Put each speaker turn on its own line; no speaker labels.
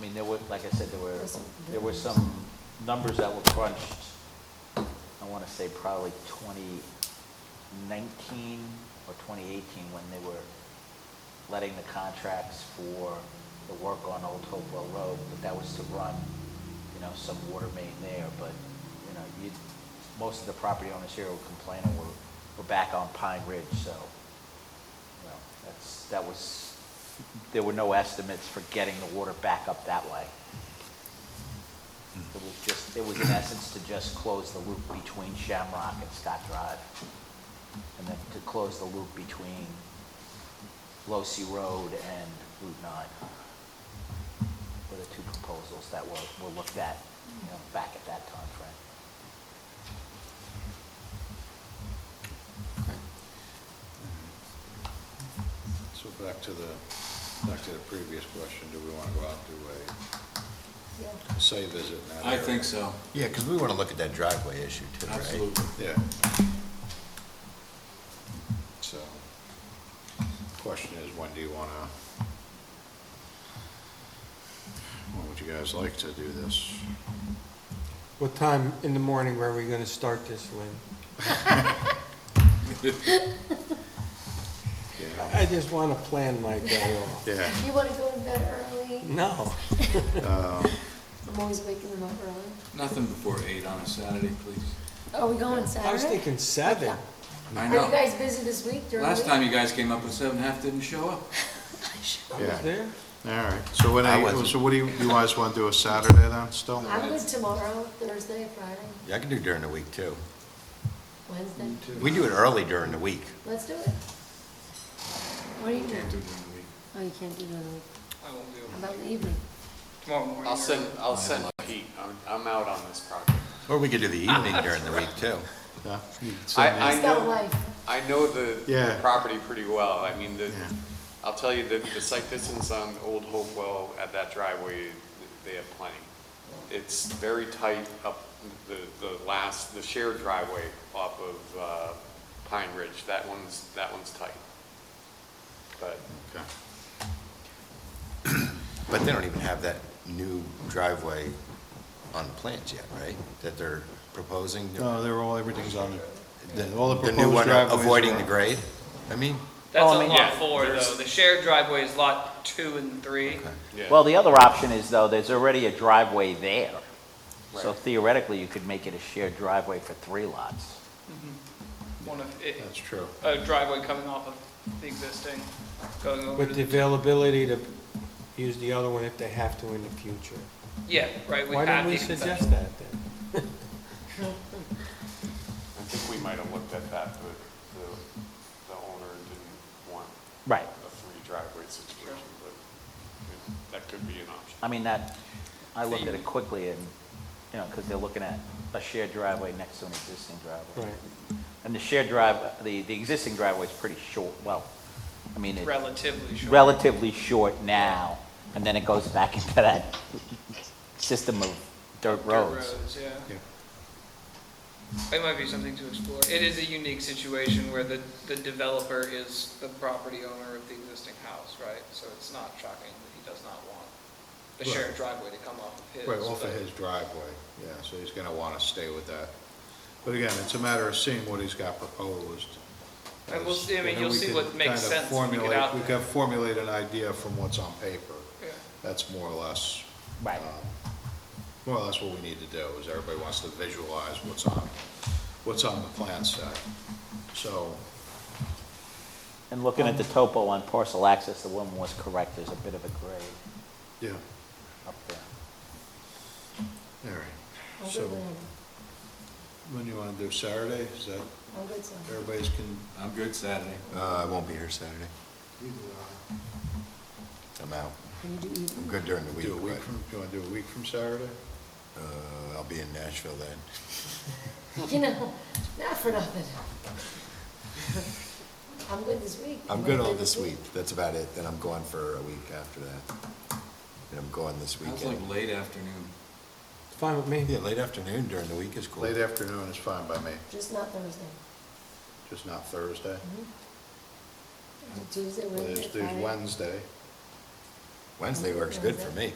mean, there were, like I said, there were,
This-
there were some numbers that were crunched. I want to say probably 2019 or 2018 when they were letting the contracts for the work on Old Hopewell Road, but that was to run, you know, some water main there, but, you know, you, most of the property owners here were complaining, we're, we're back on Pine Ridge, so, you know, that's, that was, there were no estimates for getting the water back up that way. It was just, it was in essence to just close the loop between Shamrock and Scott Drive, and then to close the loop between Losi Road and Route 9 were the two proposals that were, were looked at, you know, back at that time frame.
So back to the, back to the previous question, do we want to go out to
Yeah.
a site visit in that
I
area?
think so,
Yeah, because we want to look at that driveway issue too, right?
absolutely.
Yeah. So, question is, when do you want to, when would you guys like to do this?
What time in the morning were we going to start this, Lynn?
Yeah.
I just want to plan my day off.
Yeah,
You want to go to bed early?
No.
I'm always waking them up early.
Nothing before eight on a Saturday, please.
Are we going
I was
Saturday?
thinking seven.
I
Are you
know.
guys busy this week during the
Last
week?
time you guys came up with seven, half didn't show up.
I was
yeah,
there.
all right. So when,
I
I-
wasn't.
so what do you, you guys want to do a Saturday then, still?
I'm good tomorrow, Thursday, Friday,
Yeah, I can do during the week too.
Wednesday.
We do it early during the week.
Let's do it. What do you
Can't do
do?
it during the week.
Oh, you can't do it in the week.
I won't be
How
able
about in the evening?
tomorrow morning.
I'll send, I'll send Pete, I'm, I'm out on this project.
Or we could do the evening during the week too.
Yeah. You can
I,
send me-
I
He's got a
know,
wife.
I know the- the
Yeah.
property pretty well, I mean, the,
Yeah.
I'll tell you, the, the site distance on Old Hopewell at that driveway, they have plenty. It's very tight up the, the last, the shared driveway off of, uh, Pine Ridge, that one's, that one's tight. But
Okay.
But they don't even have that new driveway on the plans yet, right? That they're proposing?
No, Oh, they're all, everything's on the, all the
Uh, The
proposed
new one uh,
driveways are
avoiding
on-
the grade? I mean,
That's
Well, I
on
mean-
lot
Yeah,
four, though.
there's-
The shared driveway is lot two and three.
Yeah.
Well, the other option is though, there's already a driveway there. So
Right.
theoretically, you could make it a shared driveway for three lots.
One of, it-
That's true.
a driveway coming off of the existing, going over to
With the
the,
availability to use the other one if they have to in the future.
yeah, right, we
Why
have
didn't
the
we
exception.
suggest that then?
I think we might have looked at that, but the, the owner didn't want
Right.
a free driveway situation, but it- that could be an option.
I mean, that, I looked at it quickly and, you know, because they're looking at a shared driveway next to an existing driveway.
Right.
And the shared drive, the, the existing driveway is pretty short, well, I mean, it's
Relatively short.
relatively short now, and then it goes back into that system of dirt
Dirt
roads.
yeah.
Yeah.
It might be something to explore. It is a unique situation where the, the developer is the property owner of the existing house, right? So it's not shocking that he does not want the
Right.
shared driveway to come off of his.
Right, off of
but-
his driveway, yeah, so he's gonna wanna stay with that. But again, it's a matter of seeing what he's got proposed.
And we'll see- I mean,
And then
you'll
we
see
can
what makes
kind of
sense when we get
formulate-
out
We
there.
can formulate an idea from what's on paper.
Yeah.
That's more or less.
Right.
um, More or less what we need to do, is everybody wants to visualize what's on, what's on the plan set. So,
And looking at the topo on parcel access, the woman was correct, there's a bit of a grade
yeah,
up there.
all right.
I'm
So,
good then.
when you wanna do Saturday, is that,
I'm good Saturday.
everybody's can,
I'm good Saturday.
uh, I won't be here Saturday. I'm out.
Can you do evening?
I'm good during the week,
do a week
but,
from, you wanna do a week from Saturday?
uh, I'll be in Nashville then.
You know, not for nothing. I'm good this week.
I'm good all this week. That's about it. Then I'm gone for a week after that. And I'm gone this
That's like
weekend.
late afternoon.
It's fine with me.
Yeah, late afternoon during the week is cool.
Late afternoon is fine by me,
Just not Thursday.
just not Thursday.
Tuesday, Wednesday,
There's,
Friday.
there's Wednesday.
Wednesday works good for me.